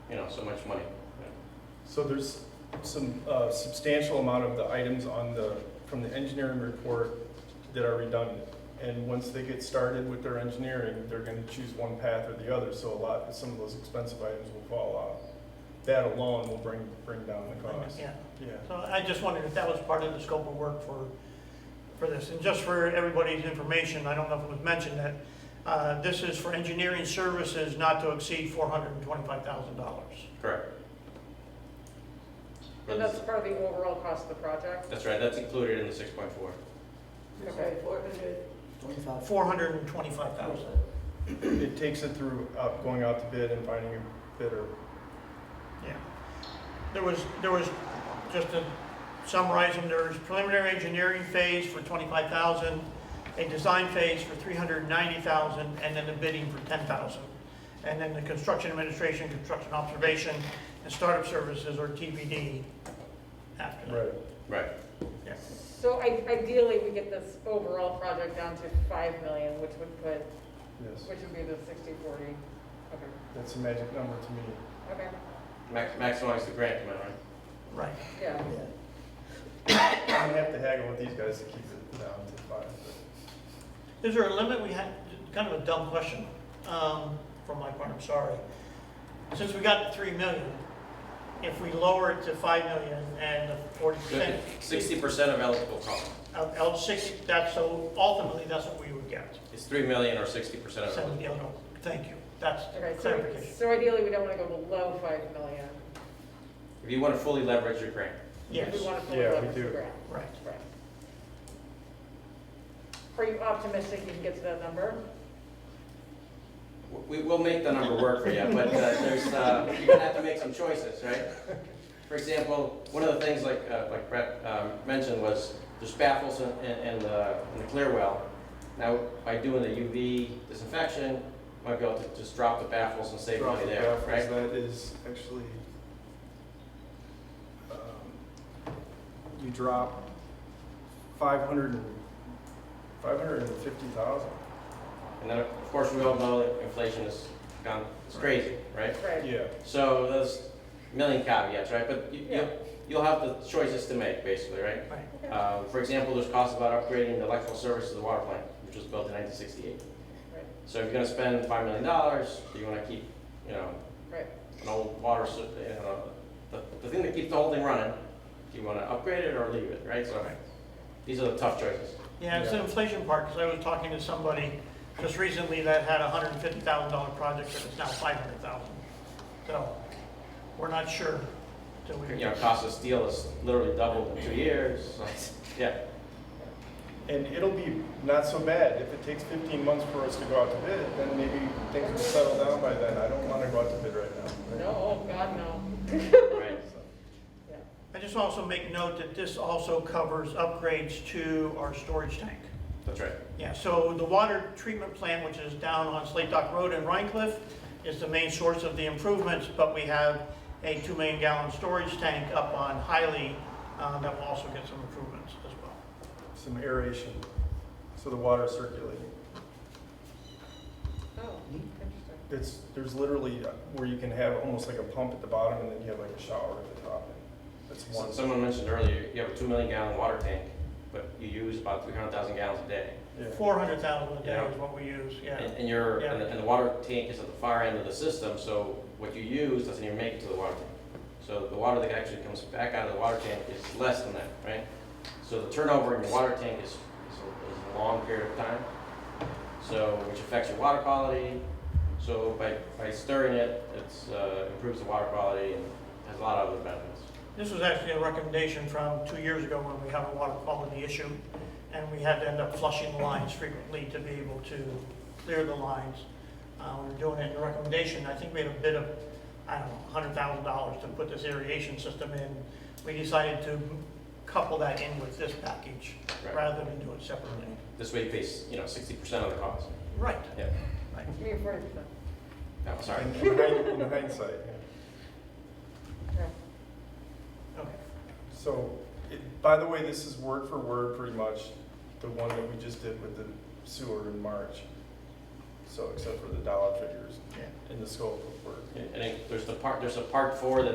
you know, so much money. So there's some uh, substantial amount of the items on the, from the engineering report that are redundant. And once they get started with their engineering, they're gonna choose one path or the other, so a lot, some of those expensive items will fall off. That alone will bring, bring down the cost. Yeah, Yeah. so I just wondered if that was part of the scope of work for, for this. And just for everybody's information, I don't know if it was mentioned that, uh, this is for engineering services not to exceed four hundred and twenty-five thousand dollars. Correct. And that's part of the overall cost of the project? That's right, that's included in the six point four. Okay. Twenty-five. Four hundred and twenty-five thousand. It takes it through, out going out to bid and finding a bidder. Yeah. There was, there was, just to summarize them, there was preliminary engineering phase for twenty-five thousand, a design phase for three hundred and ninety thousand, and then the bidding for ten thousand. And then the construction administration, construction observation, and startup services or TBD after that. Right. Right. Yeah. So i- ideally, we get this overall project down to 5 million, which would put, Yes, which would be the 60/40. Okay, that's a magic number to me. okay, Max, maximize the grant amount, right? Right. yeah. Yeah. I'm gonna have to haggle with these guys to keep it down to five. Is there a limit? We had, kind of a dumb question, um, from my part, I'm sorry. Since we got to three million, if we lower it to five million and forty percent. Sixty percent of eligible cost. Of L six, that's, so ultimately, that's what we would get. It's three million or sixty percent of Seven, eligible. the other, thank you, that's Okay, so, clarification. so ideally, we don't want to go below 5 million. If you want to fully leverage your grant. Yes, We want to fully Yeah, we leverage the do. grant. right. Right. Are you optimistic you can get to that number? We, we'll make the number work for you, but uh, there's, uh, you're gonna have to make some choices, right? For example, one of the things like, uh, like Brett um, mentioned was there's baffles in, in, in the, in the clear well. Now, by doing the UV disinfection, might be able to just drop the baffles and save money there, Drop it right? backwards, That is actually, um, you drop five hundred and, five hundred and fifty thousand. And then, of course, we all know that inflation has gone, it's crazy, right? Right, Yeah. So there's a million caveats, right? But you, Yeah. you'll, you'll have the choices to make, basically, right? Right. Yeah. Um, For example, there's costs about upgrading the electrical service of the water plant, which was built in 1968. right, So if you're gonna spend $5 million, do you wanna keep, you know, right. an old water, s- you know, the, the thing that keeps the whole thing running, do you wanna upgrade it or leave it, right? So Right. these are the tough choices. Yeah, it's the Yeah. inflation part, because I was talking to somebody just recently that had a hundred and fifty thousand dollar project, and it's now five hundred thousand. So, we're not sure till we. You know, cost of steel is literally doubled in two years, yeah. And it'll be not so bad. If it takes fifteen months for us to go out to bid, then maybe things will settle down by then. I don't wanna go out to bid right now. No, oh, God, no. Right. Yeah. I just also make note that this also covers upgrades to our storage tank. That's right. Yeah, so the water treatment plant, which is down on Slate Dock Road in Rhine Cliff, is the main source of the improvements, but we have a two million gallon storage tank up on Hiley, uh, that will also get some improvements as well. Some aeration, so the water circulating. Oh, interesting. It's, there's literally uh, where you can have almost like a pump at the bottom and then you have like a shower at the top. That's So- one, Someone mentioned earlier, you have a two million gallon water tank, but you use about three hundred thousand gallons a day. yeah. Four hundred thousand a day Yeah. is what we use, And, yeah. and your, Yeah. and the, and the water tank is at the far end of the system, so what you use doesn't even make it to the water tank. So the water that actually comes back out of the water tank is less than that, right? So the turnover in your water tank is, is a, is a long period of time. So, which affects your water quality. So by, by stirring it, it's, uh, improves the water quality and has a lot of other benefits. This was actually a recommendation from two years ago when we had a water quality issue, and we had to end up flushing the lines frequently to be able to clear the lines. Uh, we were doing it in the recommendation, I think we had a bid of, I don't know, hundred thousand dollars to put this irrigation system in. We decided to couple that in with this package, Right. rather than do it separately. This way you pay, s- you know, sixty percent of the cost. Right, Yeah, right. I mean, 40%. no, sorry. In hind- in hindsight, yeah. Yeah. Okay. So, it- by the way, this is word for word pretty much the one that we just did with the sewer in March. so except for the dollar figures Yeah. and the scope of work. And I think there's the part, there's a part four that